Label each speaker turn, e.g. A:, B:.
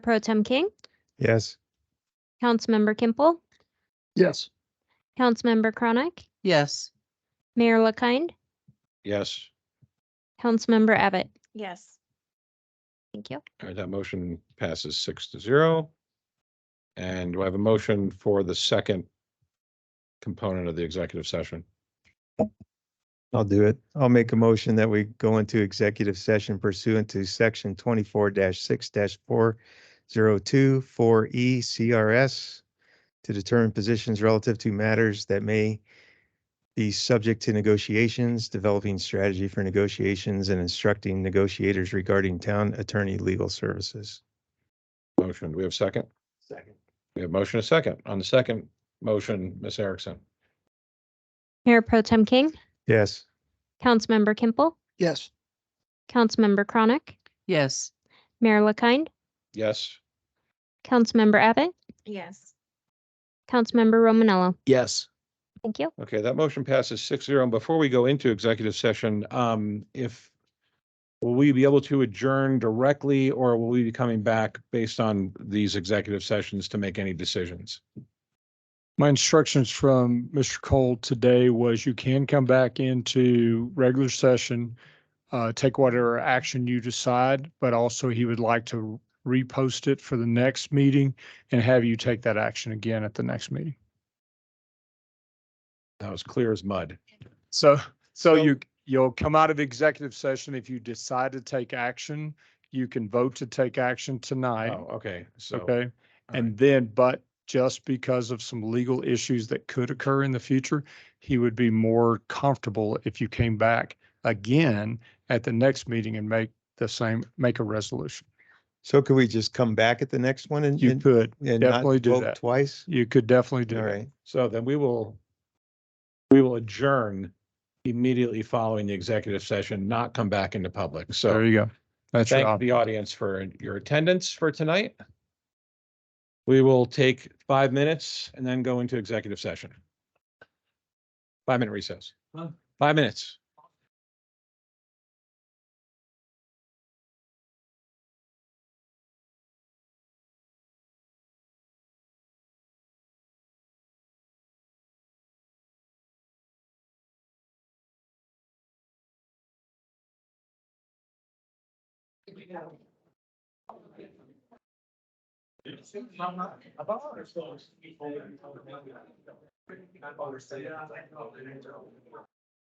A: Pro Tem King,
B: Yes.
A: Councilmember Kimple,
B: Yes.
A: Councilmember Chronic,
C: Yes.
A: Mayor LaKind,
B: Yes.
A: Councilmember Abbott.
D: Yes.
A: Thank you.
B: All right, that motion passes six to zero. And do I have a motion for the second component of the executive session?
E: I'll do it. I'll make a motion that we go into executive session pursuant to section twenty-four six four zero two four E CRS to determine positions relative to matters that may be subject to negotiations, developing strategy for negotiations and instructing negotiators regarding town attorney legal services.
B: Motion, do we have a second?
E: Second.
B: We have motion a second. On the second motion, Ms. Erickson?
A: Mayor Pro Tem King,
E: Yes.
A: Councilmember Kimple,
C: Yes.
A: Councilmember Chronic,
C: Yes.
A: Mayor LaKind,
B: Yes.
A: Councilmember Abbott,
D: Yes.
A: Councilmember Romanello.
B: Yes.
A: Thank you.
B: Okay, that motion passes six zero. And before we go into executive session, um, if will we be able to adjourn directly or will we be coming back based on these executive sessions to make any decisions?
F: My instructions from Mr. Cole today was you can come back into regular session, uh, take whatever action you decide, but also he would like to repost it for the next meeting and have you take that action again at the next meeting.
B: That was clear as mud.
F: So, so you, you'll come out of executive session. If you decide to take action, you can vote to take action tonight.
B: Oh, okay, so.
F: Okay.
B: all right.
F: And then, but just because of some legal issues that could occur in the future, he would be more comfortable if you came back again at the next meeting and make the same, make a resolution.
E: So could we just come back at the next one and,
F: You
E: and
F: could,
E: and not
F: definitely do
E: vote
F: that.
E: twice?
F: you could definitely do
E: All
F: that.
E: right.
B: So then we will, we will adjourn immediately following the executive session, not come back into public.
F: There
B: So
F: you go. That's your
B: thank
F: option.
B: the audience for your attendance for tonight. We will take five minutes and then go into executive session. Five minute recess. Five minutes.